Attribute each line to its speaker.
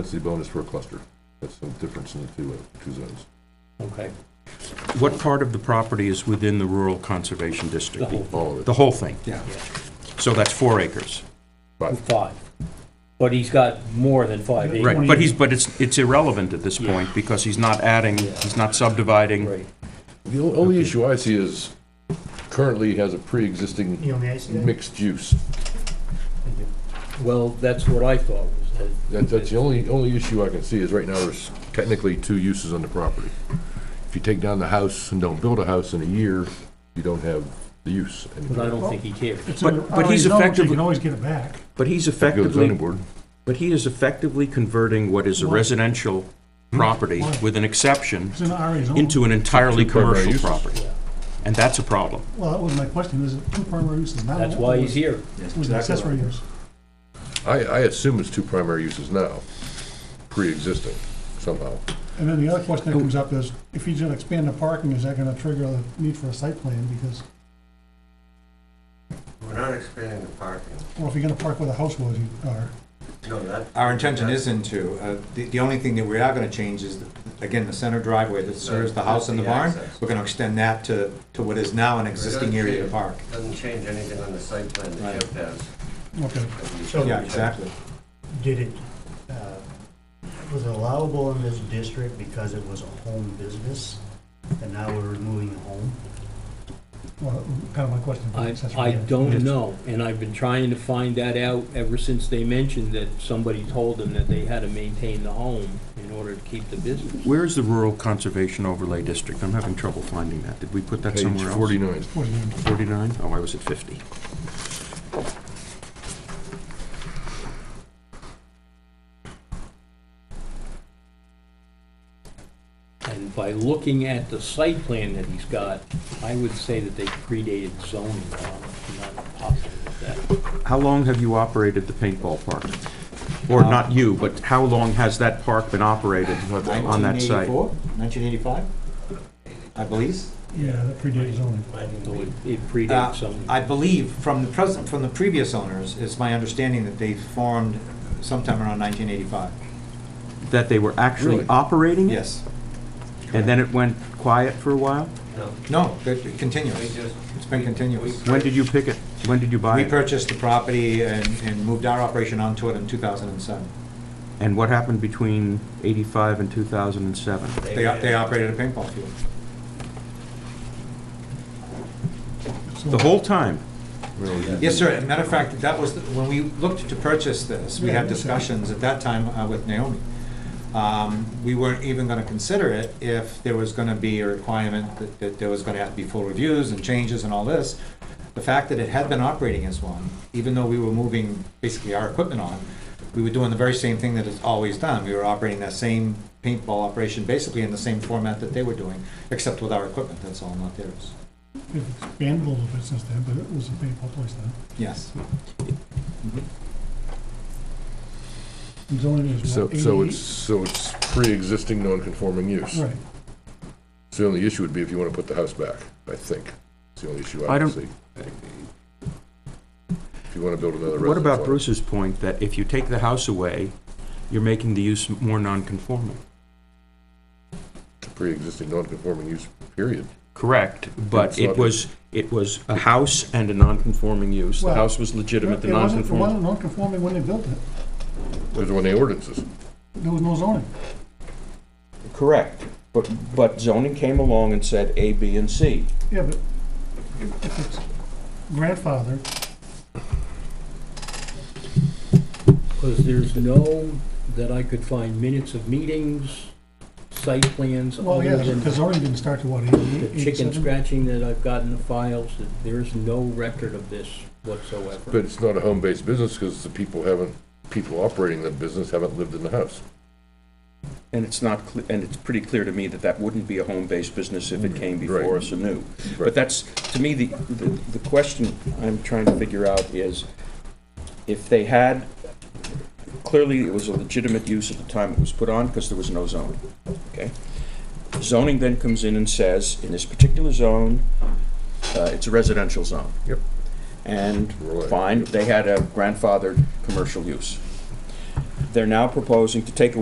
Speaker 1: density bonus for a cluster. That's the difference in the two, uh, two zones.
Speaker 2: Okay,
Speaker 3: What part of the property is within the rural conservation district?
Speaker 2: the whole thing,
Speaker 1: All of
Speaker 3: The
Speaker 1: it.
Speaker 3: whole thing?
Speaker 4: Yeah.
Speaker 3: So that's four acres.
Speaker 1: Five.
Speaker 2: five. But he's got more than five acres.
Speaker 3: Right, but he's, but it's, it's irrelevant at this point because he's not adding, he's not subdividing.
Speaker 2: Right.
Speaker 1: The o- only issue I see is currently has a pre-existing
Speaker 5: You on the ice today?
Speaker 1: mixed use.
Speaker 2: Well, that's what I thought was that.
Speaker 1: That, that's the only, only issue I can see is right now there's technically two uses on the property. If you take down the house and don't build a house in a year, you don't have the use
Speaker 2: But I
Speaker 1: anymore.
Speaker 2: don't think he cares.
Speaker 5: It's
Speaker 3: But-
Speaker 5: in the-
Speaker 3: but he's
Speaker 5: already known, so
Speaker 3: effectively-
Speaker 5: You can always get it back.
Speaker 3: But he's
Speaker 1: Go to the zoning
Speaker 3: effectively,
Speaker 1: board.
Speaker 3: but he is effectively converting what is a
Speaker 5: Why?
Speaker 3: residential property
Speaker 5: Why?
Speaker 3: with an exception
Speaker 5: It's in the RA zone.
Speaker 3: into an entirely
Speaker 1: Two primary
Speaker 3: commercial
Speaker 1: uses.
Speaker 3: property. And that's a problem.
Speaker 5: Well, that was my question, is it two primary uses now?
Speaker 2: That's why he's here.
Speaker 5: It was an accessory use.
Speaker 1: I, I assume it's two primary uses now, pre-existing somehow.
Speaker 5: And then the other question that comes up is, if he's gonna expand the parking, is that gonna trigger the need for a site plan? Because,
Speaker 6: We're not expanding the parking.
Speaker 5: or if you're gonna park where the house was, you are.
Speaker 6: No, that.
Speaker 4: Our intention isn't to. Uh, The the only thing that we are going to change is, again, the center driveway that serves the house and the barn.
Speaker 6: Access.
Speaker 4: We're going to extend that to, to what is now an existing area to park.
Speaker 6: Doesn't change anything on the site plan that
Speaker 4: Right.
Speaker 6: Jeff has.
Speaker 5: Okay,
Speaker 7: So- uh,
Speaker 4: Yeah, exactly.
Speaker 7: Did it, uh, was it allowable in this district because it was a home business, and now we're removing a home?
Speaker 5: well, kind of my question. for
Speaker 2: I,
Speaker 5: accessory
Speaker 2: I
Speaker 5: use.
Speaker 2: don't know, and I've been trying to find that out ever since they mentioned that somebody told them that they had to maintain the home in order to keep the business.
Speaker 3: Where is the rural conservation overlay district? I'm having trouble finding that. Did we put that
Speaker 1: Page
Speaker 3: somewhere else?
Speaker 1: forty-nine.
Speaker 5: What do you mean?
Speaker 3: 49? Oh, I was at 50.
Speaker 2: And by looking at the site plan that he's got, I would say that they predated zoning on it, not possible with that.
Speaker 3: How long have you operated the paintball park? Or not you, but how long has that park been operated on that site?
Speaker 4: 1984, 1985, I believe.
Speaker 5: Yeah, that predates zoning.
Speaker 2: So it- it
Speaker 4: Uh,
Speaker 2: predates zoning.
Speaker 4: I believe from the present, from the previous owners, it's my understanding that they formed sometime around 1985.
Speaker 3: That they were actually
Speaker 1: Really?
Speaker 3: operating? it?
Speaker 4: Yes.
Speaker 3: And then it went quiet for a while?
Speaker 6: No,
Speaker 4: No, that it continues.
Speaker 6: we just.
Speaker 4: It's been continuous.
Speaker 3: When did you pick it? When did you buy
Speaker 4: We
Speaker 3: it?
Speaker 4: purchased the property and, and moved our operation onto it in 2007.
Speaker 3: And what happened between 85 and 2007?
Speaker 4: They, they operated a paintball field.
Speaker 5: So-
Speaker 3: The whole time?
Speaker 4: Yes, sir, as a matter of fact, that was, the- when we looked to purchase this, we
Speaker 5: Yeah, I
Speaker 4: had
Speaker 5: understand.
Speaker 4: discussions at that time uh, with Naomi. Um, We weren't even gonna consider it if there was gonna be a requirement that, that there was gonna have to be full reviews and changes and all this. The fact that it had been operating as one, even though we were moving basically our equipment on, we were doing the very same thing that it's always done. We were operating that same paintball operation basically in the same format that they were doing, except with our equipment, that's all, not theirs.
Speaker 5: It expanded a little bit since then, but it was a painful place then.
Speaker 4: Yes.
Speaker 5: And Zoning is
Speaker 1: So,
Speaker 5: what,
Speaker 1: so
Speaker 5: 88?
Speaker 1: it's, so it's pre-existing non-conforming use.
Speaker 5: Right,
Speaker 1: So the only issue would be if you want to put the house back, I think. It's the only issue
Speaker 3: I
Speaker 1: I can
Speaker 3: don't-
Speaker 1: see. If you want to build another residence.
Speaker 3: What about
Speaker 1: on it.
Speaker 3: Bruce's point that if you take the house away, you're making the use more non-conforming?
Speaker 1: Pre-existing non-conforming use, period.
Speaker 3: Correct, but
Speaker 1: It's
Speaker 3: it
Speaker 1: not-
Speaker 3: was, it was a house and a non-conforming use. The
Speaker 5: Well,
Speaker 3: house was legitimate,
Speaker 5: It
Speaker 3: the
Speaker 5: wasn't, it
Speaker 3: non-conforming.
Speaker 5: wasn't non-conforming when they built it.
Speaker 1: Those are when the ordinances.
Speaker 5: There was no zoning.
Speaker 3: Correct, but, but zoning came along and said A, B, and C.
Speaker 5: Yeah, but if- if it's grandfather,
Speaker 2: Because there's no, that I could find minutes of meetings, site plans,
Speaker 5: well, yeah,
Speaker 2: other than
Speaker 5: because zoning didn't start to what,
Speaker 2: the
Speaker 5: eighty-eight,
Speaker 2: chicken
Speaker 5: eighty-seven?
Speaker 2: scratching that I've got in the files, that there's no record of this whatsoever.
Speaker 1: But it's not a home-based business because the people haven't, people operating the business haven't lived in the house.
Speaker 3: And it's not, cle- and it's pretty clear to me that that wouldn't be a home-based business if it came before
Speaker 1: Mm, Right.
Speaker 3: us anew.
Speaker 1: Right.
Speaker 3: But that's, to me, the, the the question I'm trying to figure out is, if they had, clearly it was a legitimate use at the time it was put on, because there was no zoning, okay? Zoning then comes in and says, in this particular zone, uh, it's a residential zone.
Speaker 1: Yep.
Speaker 3: And
Speaker 1: Right.
Speaker 3: fine, they had a grandfathered commercial use. they're now proposing to take